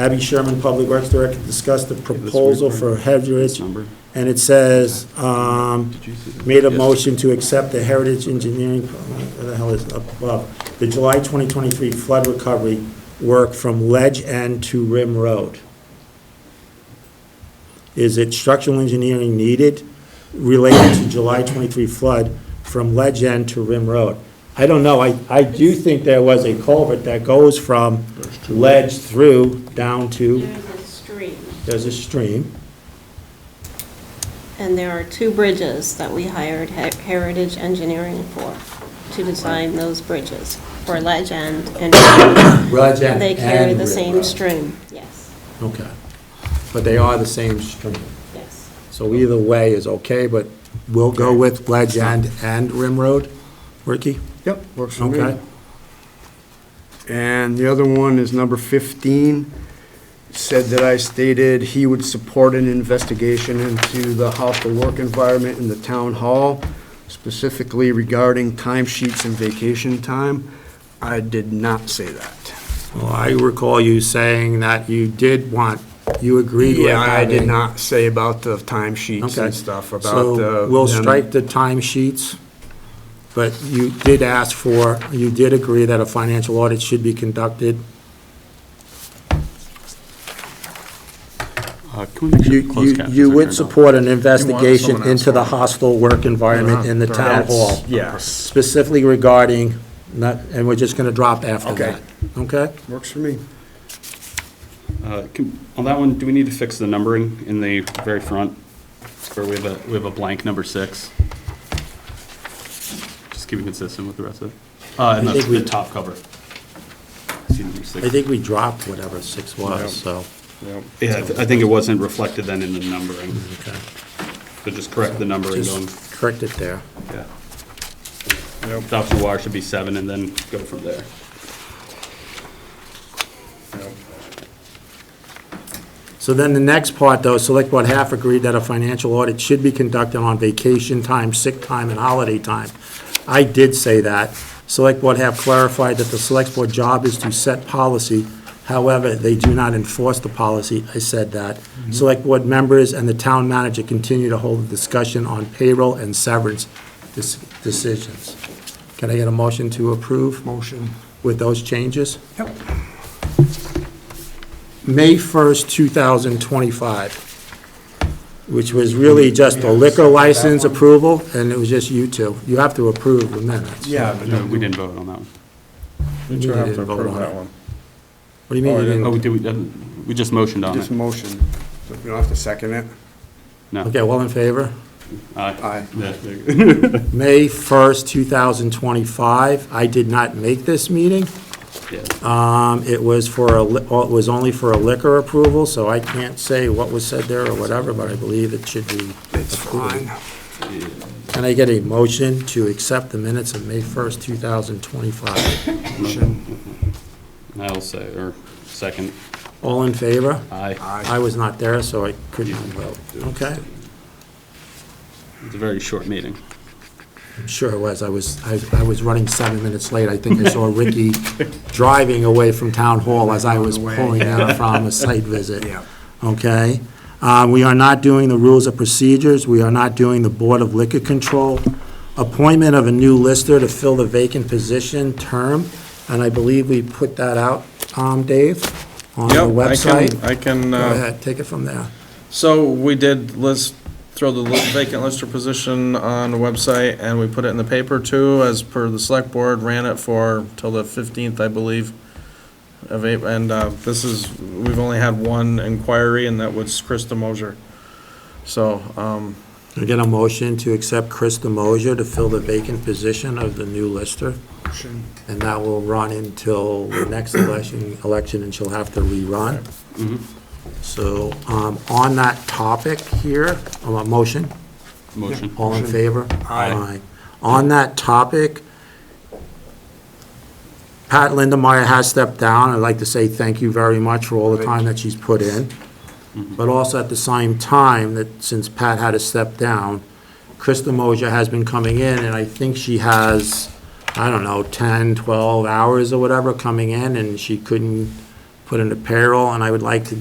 Abby Sherman, Public Works Director, discussed the proposal for Heritage, Number? and it says, um, made a motion to accept the Heritage Engineering, what the hell is up above, the July 2023 flood recovery work from Ledge End to Rim Road. Is it structural engineering needed related to July 23 flood from Ledge End to Rim Road? I don't know, I, I do think there was a culvert that goes from Ledge through down to, There's a stream, there's a stream. and there are two bridges that we hired He- Heritage Engineering for, to design those bridges, for Ledge End and Ledge End They carry and the Rim same Road. stream, yes, Okay. But they are the same stream. yes. So either way is okay, but we'll go with Ledge End and Rim Road. Ricky? Yep, works for me. Okay. And the other one is number 15, said that I stated he would support an investigation into the how to work environment in the town hall, specifically regarding timesheets and vacation time. I did not say that. Well, I recall you saying that you did want, you agreed with Yeah, I did having- not say about the timesheets Okay. and stuff, about uh, the... So we'll them- strike the timesheets, but you did ask for, you did agree that a financial audit should be conducted. You, you, you would support an investigation into the hostile work environment in Uh-huh. the town hall. Yes, specifically regarding, not, and we're just gonna drop after Okay. that. Okay? works for me. Uh, can- On that one, do we need to fix the numbering in the very front, where we have a, we have a blank number six? Just keep it consistent with the rest of it. Uh, and I the, think we- the top cover. See number six? I think we dropped whatever six was, so. Yeah, I th- I think it wasn't reflected then in the numbering, okay. so just correct the numbering going, Just correct it there. yeah. Adoption of water should be seven and then go from there. So then the next part, though, Select Board half agreed that a financial audit should be conducted on vacation time, sick time, and holiday time. I did say that. Select Board half clarified that the Select Board job is to set policy, however, they do not enforce the policy. I said that. Select Board members and the town manager continue to hold a discussion on payroll and severance dis- decisions. Can I get a motion to approve? Motion. With those changes? Yep. May 1st, 2025, which was really just a liquor license approval, and it was just you two. You have to approve the minutes. Yeah, but No, we didn't vote on that one. You You have to didn't vote approve on that it. one. What do you mean Oh, you I Oh, didn't? we did, we didn't- we just motioned on Just it. motion. You don't have to second it? No. Okay, all in favor? Aye. Aye. Yeah, there you go. May 1st, 2025, I did not make this meeting. Yeah. Um, It was for, a li- oh, it was only for a liquor approval, so I can't say what was said there or whatever, but I believe it should be It's approved. fine. Can I get a motion to accept the minutes of May 1st, 2025? Motion. I'll say, or second, All in favor? aye. Aye. I was not there, so I couldn't vote. Okay? It's a very short meeting. Sure it was. I was, I I was running seven minutes late. I think I saw Ricky driving away from Town Hall as I was pulling out from a site visit. Yeah. Okay? Uh, We are not doing the rules of procedures. We are not doing the Board of Liquor Control. Appointment of a new lister to fill the vacant position term, and I believe we put that out, um, Dave, on the Yep, I website. can, I can, Go uh, ahead, take it from there. so we did list, throw the li- vacant lister position on the website, and we put it in the paper too, as per the select board, ran it for till the fifteenth, I believe, of April, and, uh, this is, we've only had one inquiry, and that was Krista Moser. So, um, I get a motion to accept Chris DeMozier to fill the vacant position of the new lister, Motion. and that will run until the next election, election, and she'll have to rerun. So, um, on that topic here, um, a motion, Motion. all in favor? Aye. On that topic, Pat Lindemeyer has stepped down. I'd like to say thank you very much for all the time that she's put in. But also at the same time, that since Pat had to step down, Krista Moja has been coming in, and I think she has, I don't know, 10, 12 hours or whatever coming in, and she couldn't put in the payroll, and I would like to